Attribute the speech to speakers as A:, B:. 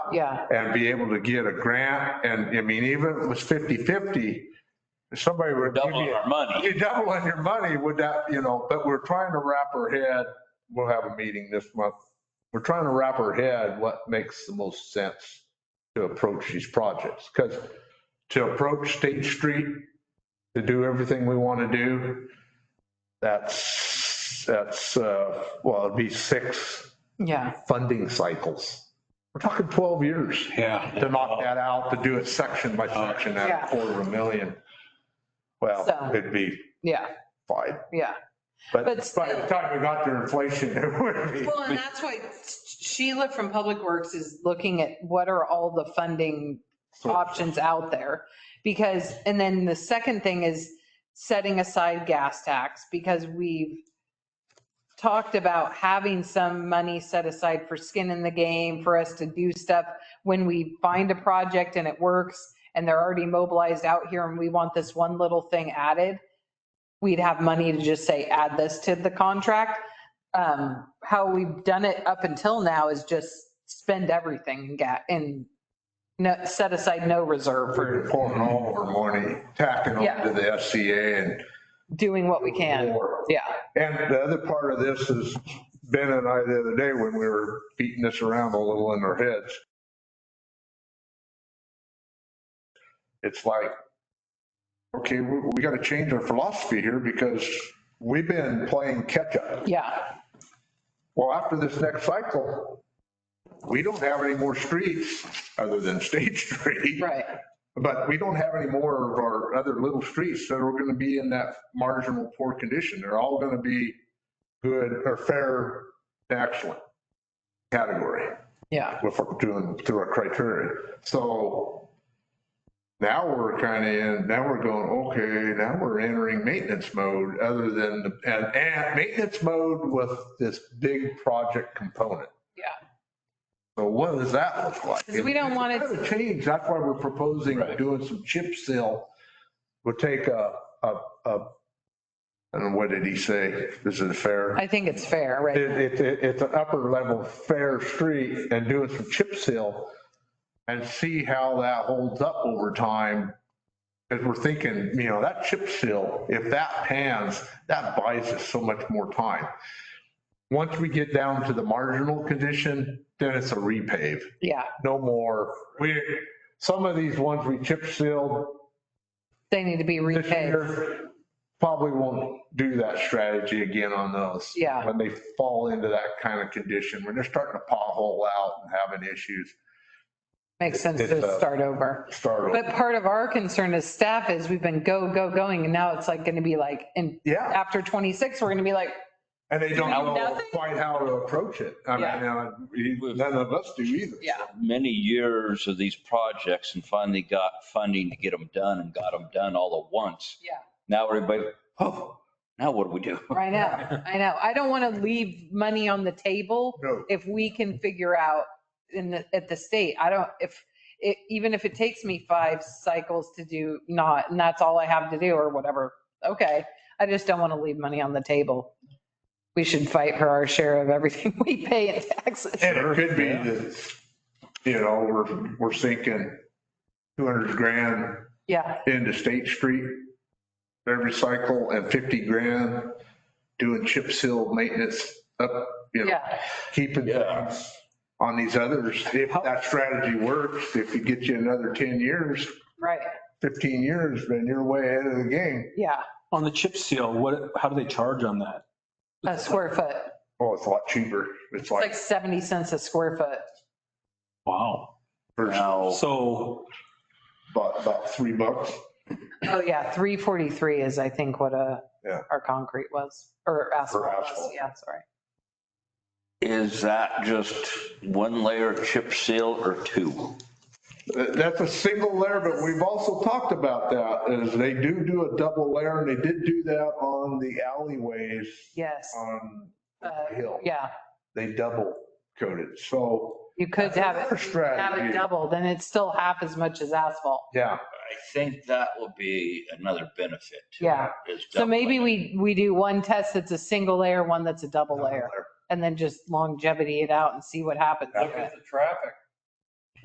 A: yeah,
B: and be able to get a grant. And I mean, even if it was 50/50, if somebody were.
C: doubling our money.
B: You're doubling your money, would that, you know, but we're trying to wrap our head, we'll have a meeting this month. We're trying to wrap our head what makes the most sense to approach these projects. Because to approach State Street, to do everything we want to do, that's, that's, uh, well, it'd be six
A: yeah.
B: funding cycles. We're talking 12 years
C: Yeah.
B: to knock that out, to do it section by section at
A: Yeah.
B: a quarter of a million. Well,
A: So-
B: it'd be
A: Yeah,
B: fine,
A: yeah.
B: but by
A: But
B: the time we got to inflation, it would be.
D: Well, and that's why Sheila from Public Works is
A: Looking at what are all the funding options out there. Because, and then the second thing is setting aside gas tax because we've talked about having some money set aside for skin in the game, for us to do stuff when we find a project and it works and they're already mobilized out here and we want this one little thing added, we'd have money to just say, add this to the contract. Um, How we've done it up until now is just spend everything and get, and no, set aside no reserve for
B: We're pouring all of our money, tacking
A: Yeah.
B: onto the SCA and.
A: doing what we can.
B: more.
A: Yeah,
B: And the other part of this is Ben and I the other day when we were beating this around a little in our heads. It's like, okay, we, we got to change our philosophy here because we've been playing catch up.
A: yeah,
B: Well, after this next cycle, we don't have any more streets other than State Street.
A: right.
B: But we don't have any more of our other little streets that are going to be in that marginal poor condition. They're all going to be good or fair to excellent category
A: Yeah,
B: if we're doing through our criteria. So now we're kind of in, now we're going, okay, now we're entering maintenance mode other than, the- and, and maintenance mode with this big project component.
A: Yeah.
B: So what does that look like?
A: 'Cause we don't want it to-
B: It's gotta change. That's why we're proposing
C: Right.
B: doing some chip seal. We'll take a, a, a, I don't know, what did he say? Is it fair?
A: I think it's fair, right?
B: It, it, it- it's an upper level fair street and doing some chip seal and see how that holds up over time. Cause we're thinking, you know, that chip seal, if that pans, that buys us so much more time. Once we get down to the marginal condition, then it's a repave,
A: Yeah,
B: no more. We, some of these ones we chip sealed
A: they need to be
B: this
A: repaid.
B: year, probably won't do that strategy again on those.
A: Yeah.
B: When they fall into that kind of condition, when they're starting to pothole out and having issues,
A: Makes sense
B: It's,
A: to
B: uh,
A: start over.
B: start
A: But
B: over.
A: part of our concern as staff is we've been go, go, going, and now it's like going to be like, and
B: Yeah,
A: after 26, we're going to be like,
B: and they don't
A: Now
B: know
A: nothing?
B: quite how to approach it. I mean, uh, we- none of us do either.
A: yeah,
C: Many years of these projects and finally got funding to get them done and got them done all at once.
A: Yeah.
C: Now everybody, oh, now what do we do?
A: I know, I know. I don't want to leave money on the table
B: No,
A: if we can figure out in the, at the state, I don't, if, it even if it takes me five cycles to do not, and that's all I have to do or whatever, okay. I just don't want to leave money on the table. We should fight for our share of everything we pay in taxes.
B: and it could be that, you know, we're, we're sinking 200 grand
A: Yeah,
B: into State Street every cycle and 50 grand doing chip seal maintenance up, you know,
A: yeah,
B: keeping
C: Yeah.
B: tabs on these others. If that strategy works, if you get you another 10 years,
A: right,
B: 15 years, then you're way ahead of the game.
A: yeah,
E: On the chip seal, what, how do they charge on that?
A: a square foot.
B: Oh, it's a lot cheaper. It's
A: It's like
B: like
A: 70 cents a square foot.
E: Wow.
B: for
C: Now,
E: So,
B: about, about three bucks.
A: Oh yeah, 343 is I think what a,
B: Yeah.
A: our concrete was, or asphalt was,
B: asphalt.
A: yeah, sorry.
C: is that just one layer chip seal or two?
B: That- That's a single layer, but we've also talked about that is they do do a double layer and they did do that on the alleyways
A: Yes,
B: on
A: Uh,
B: the hill.
A: yeah.
B: They double coated. So,
A: You could
B: That's
A: have
B: another
A: it, have
B: strategy.
A: it double, then it's still half as much as asphalt.
B: yeah,
C: I think that will be another benefit. to it,
A: Yeah.
C: is
A: So maybe
C: doubling it.
A: we, we do one test that's a single layer, one that's a double
B: double
A: layer,
B: layer.
A: and then just longevity it out and see what happens.
B: Yeah.
F: Look at the traffic